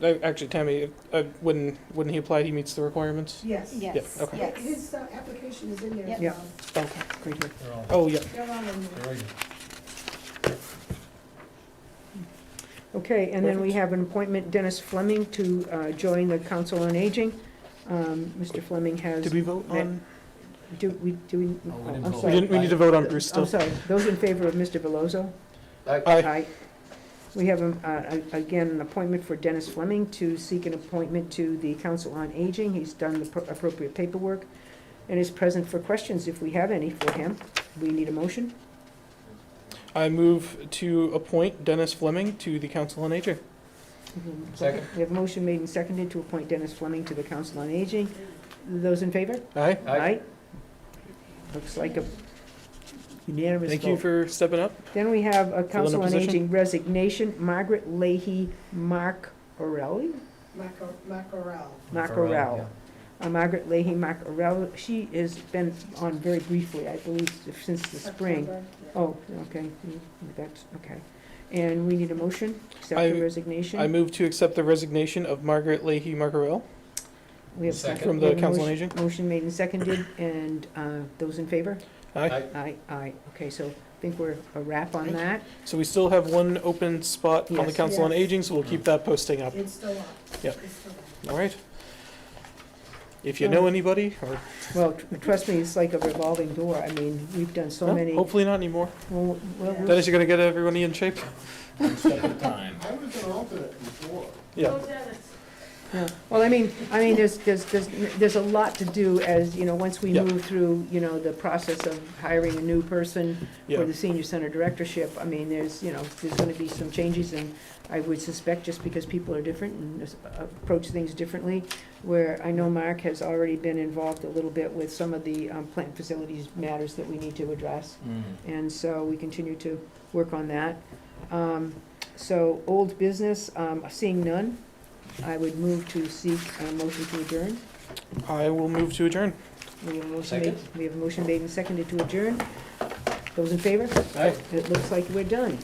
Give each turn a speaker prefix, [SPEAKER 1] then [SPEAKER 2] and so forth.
[SPEAKER 1] Uh, Actually, Tammy, uh, when, when he applied, he meets the requirements?
[SPEAKER 2] Yes.
[SPEAKER 3] Yes.
[SPEAKER 1] Yeah, okay.
[SPEAKER 2] Yeah, His uh, application is in there.
[SPEAKER 3] Yep.
[SPEAKER 2] as
[SPEAKER 1] Yeah.
[SPEAKER 2] well.
[SPEAKER 1] Okay, great.
[SPEAKER 4] They're all,
[SPEAKER 1] Oh, yeah,
[SPEAKER 2] They're all in there.
[SPEAKER 4] they're all-
[SPEAKER 5] Okay, and then we have an appointment, Dennis Fleming, to uh, join the Council on Aging. Um, Mr. Fleming has,
[SPEAKER 1] did we vote
[SPEAKER 5] That-
[SPEAKER 1] on,
[SPEAKER 5] do we, do we?
[SPEAKER 4] Oh, we didn't
[SPEAKER 5] I'm
[SPEAKER 4] vote.
[SPEAKER 1] we
[SPEAKER 5] sorry.
[SPEAKER 1] didn't, we need to vote on Bruce
[SPEAKER 5] I'm
[SPEAKER 1] still.
[SPEAKER 5] sorry, those in favor of Mr. Veloso?
[SPEAKER 1] Aye,
[SPEAKER 5] We have, um, uh, a- again, an appointment for Dennis Fleming to seek an appointment to the Council on Aging. He's done the pro- appropriate paperwork and is present for questions if we have any for him. We need a motion.
[SPEAKER 1] I move to appoint Dennis Fleming to the Council on Aging.
[SPEAKER 4] Second.
[SPEAKER 5] We have a motion made and seconded to appoint Dennis Fleming to the Council on Aging. Those in favor?
[SPEAKER 1] Aye,
[SPEAKER 4] Aye.
[SPEAKER 5] Looks like a unanimous
[SPEAKER 1] thank you
[SPEAKER 5] vote.
[SPEAKER 1] for stepping up.
[SPEAKER 5] Then we have a Council on
[SPEAKER 1] position.
[SPEAKER 5] Aging resignation, Margaret Leahy Mark Orelli?
[SPEAKER 2] Maco- Macorel.
[SPEAKER 5] Macarel.
[SPEAKER 4] Yeah.
[SPEAKER 5] Uh, Margaret Leahy Mark Orelli, she has been on very briefly, I believe, since the spring.
[SPEAKER 2] September, yeah.
[SPEAKER 5] Oh, okay, mm, that's, okay. And we need a motion, accept
[SPEAKER 1] I-
[SPEAKER 5] the
[SPEAKER 1] I
[SPEAKER 5] resignation.
[SPEAKER 1] move to accept the resignation of Margaret Leahy Margarell
[SPEAKER 5] We have
[SPEAKER 4] Second.
[SPEAKER 5] second.
[SPEAKER 1] from
[SPEAKER 5] We
[SPEAKER 1] the
[SPEAKER 5] have a
[SPEAKER 1] Council on
[SPEAKER 5] motion-
[SPEAKER 1] Aging.
[SPEAKER 5] Motion made and seconded, and uh, those in favor?
[SPEAKER 1] Aye,
[SPEAKER 4] Aye.
[SPEAKER 5] Aye, aye. Okay, so I think we're a wrap on that.
[SPEAKER 1] so we still have one open spot on the
[SPEAKER 5] Yes.
[SPEAKER 1] Council on
[SPEAKER 2] Yes.
[SPEAKER 1] Aging, so we'll keep that posting up,
[SPEAKER 2] It's still up.
[SPEAKER 1] Yep.
[SPEAKER 2] It's still up.
[SPEAKER 1] all right? If you
[SPEAKER 5] Oh.
[SPEAKER 1] know anybody, or,
[SPEAKER 5] Well, tr- trust me, it's like a revolving door. I mean, we've done so
[SPEAKER 1] No,
[SPEAKER 5] many. well,
[SPEAKER 1] hopefully not anymore.
[SPEAKER 5] well, we'll-
[SPEAKER 1] Dennis, you gonna get everybody in shape?
[SPEAKER 4] One step at a time.
[SPEAKER 6] I was an alternate before.
[SPEAKER 1] Yeah.
[SPEAKER 5] Well, I mean, I mean, there's, there's, there's, there's a lot to do as, you know, once we
[SPEAKER 1] Yeah.
[SPEAKER 5] move through, you know, the process of hiring a new person
[SPEAKER 1] Yeah.
[SPEAKER 5] for the senior center directorship, I mean, there's, you know, there's gonna be some changes and I would suspect just because people are different and s- approach things differently, where I know Mark has already been involved a little bit with some of the um, plant facilities matters that we need to address.
[SPEAKER 4] Mm.
[SPEAKER 5] and so we continue to work on that. Um, So, old business, um, seeing none, I would move to seek a motion to adjourn.
[SPEAKER 1] I will move to adjourn.
[SPEAKER 5] We have a motion made, we have a motion made and seconded to adjourn. Those in favor?
[SPEAKER 4] Aye.
[SPEAKER 5] It looks like we're done.